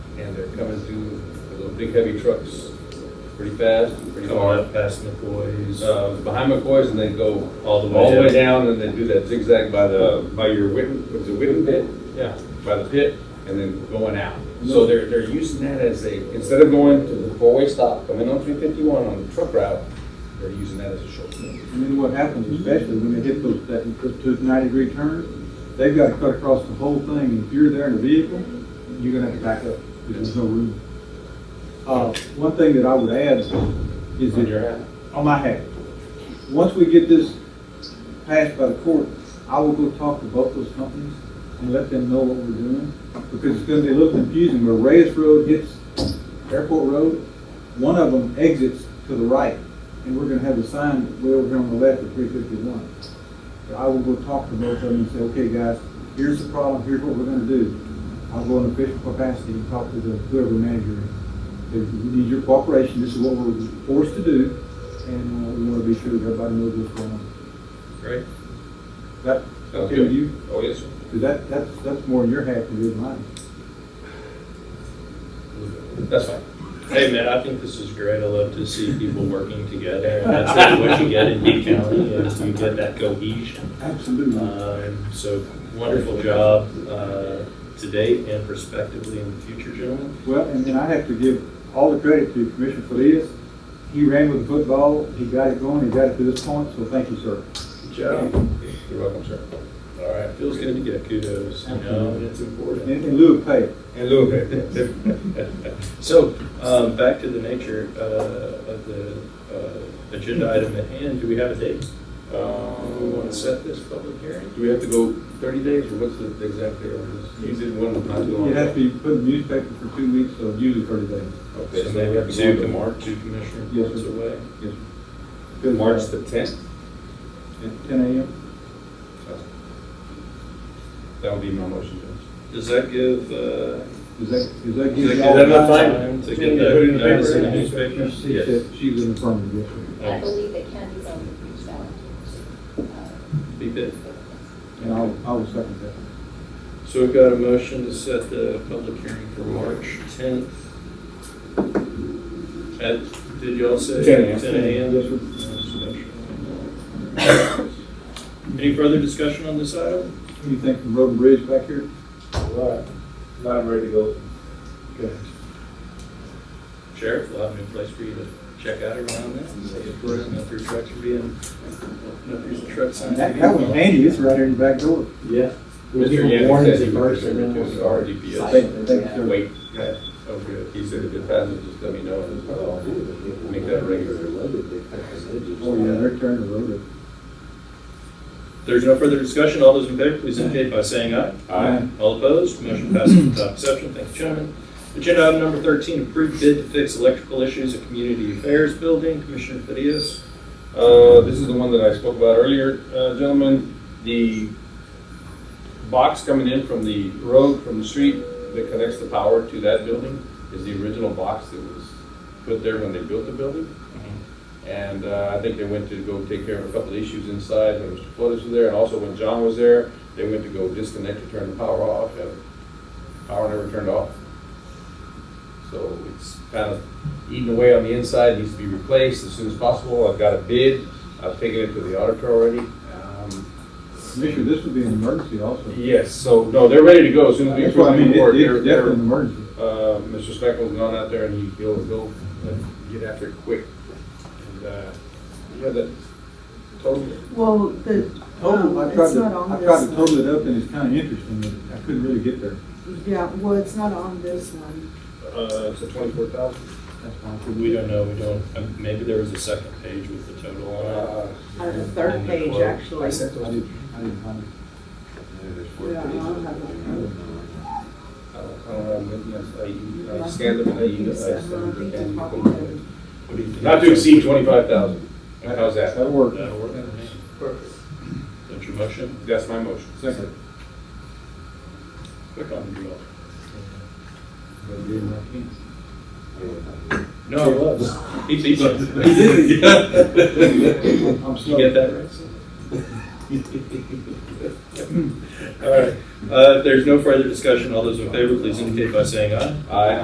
and they're coming through with those big heavy trucks, pretty fast, and pretty Come on hard. up past McCoy's. Uh, behind McCoy's and they go all All the the way way down. down and they do that zigzag by the, by your Witten, was it Witten pit? Yeah. By the pit and then going out. So they're, they're using that as a, instead of going to the four-way stop, coming on three fifty-one on the truck route, they're using that as a short. And then what happens, especially when they hit those, that, those ninety-degree turns, they've got to cut across the whole thing, and if you're there in a vehicle, you're gonna have to back up, because there's no room. Uh, one thing that I would add is On that. your hat? On my hat. Once we get this passed by the court, I will go talk to both those companies and let them know what we're doing, because it's gonna be a little confusing, where Reyes Road hits Airport Road, one of them exits to the right, and we're gonna have the sign way over here on the left at three fifty-one. I will go talk to both of them and say, okay, guys, here's the problem, here's what we're gonna do. I'll go in official capacity and talk to the, whoever manager is. If We need your cooperation, this is what we're forced to do, and uh, we wanna be sure that everybody knows what's going on. Great. That, okay with you? Oh, yes, sir. 'Cause that, that's, that's more your half than your mine. That's fine. Hey, man, I think this is great. I love to see people working together. And that's really what you get in D County, is you get that cohesion. Absolutely. Um, So wonderful job uh, to date and prospectively in the future, gentlemen. Well, and then I have to give all the credit to Commissioner Feliz. He ran with the football, he got it going, he got it to this point, so thank you, sir. Good job. You're welcome, sir. All right, feels good to get kudos, you know, and it's important. In, in lieu of pay. And Lou, okay. So, um, back to the nature, uh, of the, uh, agenda item at hand, do we have a date? We Um, want to set this public hearing? Do we have to go thirty days, or what's the exact date on this? You did one not too long. It has ago. to be put in the newspaper for two weeks, so usually thirty days. Okay, So so we have to two go to March. March, two Commissioner Yes, Brooks sir. away. Yes. Because, uh, March the tenth? At ten AM. That would be my motion, Judge. Does that give, uh, Is that, is that? does that give give y'all enough time? time to Put get it in that the notice in paper. the newspaper? She said she's in the affirmative, yes, I believe that Candy's on the reached out. uh, Be bid. sir. and I'll, I will second that. So we've got a motion to set the public hearing for March tenth. At, did y'all say? 10 a.m. a.m.? Yes, sir. Any further discussion on this item? What do you think from Road and Bridge back here? Now I'm ready to go. Okay. Sheriff, we'll have a new place for you to check out around that and see if we're in your trucks are being, if your truck signs. That, that was handy, it's right here in the back door. Yeah. Mr. Yannick said he would return it to our Thank, DPS. thank you, sir. Wait, oh, good. He said if it passes, just let me know, and I'll make that regular. Oh, yeah, they're turning the road. There's no further discussion. All those in favor, please indicate by saying aye. Aye. All opposed, motion passes without exception. Thank you, gentlemen. Agenda item number 13, approved bid to fix electrical issues at Community Affairs Building. Commissioner Fidias. Uh, this is the one that I spoke about earlier, uh, gentlemen. The box coming in from the road, from the street, that connects the power to that building is the original box that was put there when they built the building. And uh, I think they went to go take care of a couple of issues inside when Mr. Flores was there, and also when John was there, they went to go disconnect to turn the power off, and power never turned off. So it's kind of eating away on the inside, needs to be replaced as soon as possible. I've got a bid, I've taken it to the auditor already. Um, Commissioner, this would be an emergency also. Yes, so, no, they're ready to go as soon as we That's what I approve the mean, it- board. it's definitely an emergency. Uh, Mr. Speckle's gone out there and he, he'll, he'll uh, get after it quick. And, uh, you have that total? Well, the, um, I tried it's to, not on I this tried to one. total it up, and it's kind of interesting, but I couldn't really get there. Yeah, well, it's not on this one. Uh, it's a twenty-four thousand. That's why I couldn't. We don't know, we don't, um, maybe there was a second page with the total on it. Uh, the third page, actually. I didn't, I didn't find it. Yeah, I don't have that. uh, um, I scanned them and I You used, I said, well, I sent think them you uh, and copied you it. can- What do you think? Not to exceed twenty-five thousand. How's that? That'll work. That'll work. Perfect. That's your motion? That's my motion. Second. Quick on the draw. He No, he was. He beat us. I'm You get sorry. that right? All right, uh, if there's no further discussion, all those in favor, please indicate by saying aye. Aye.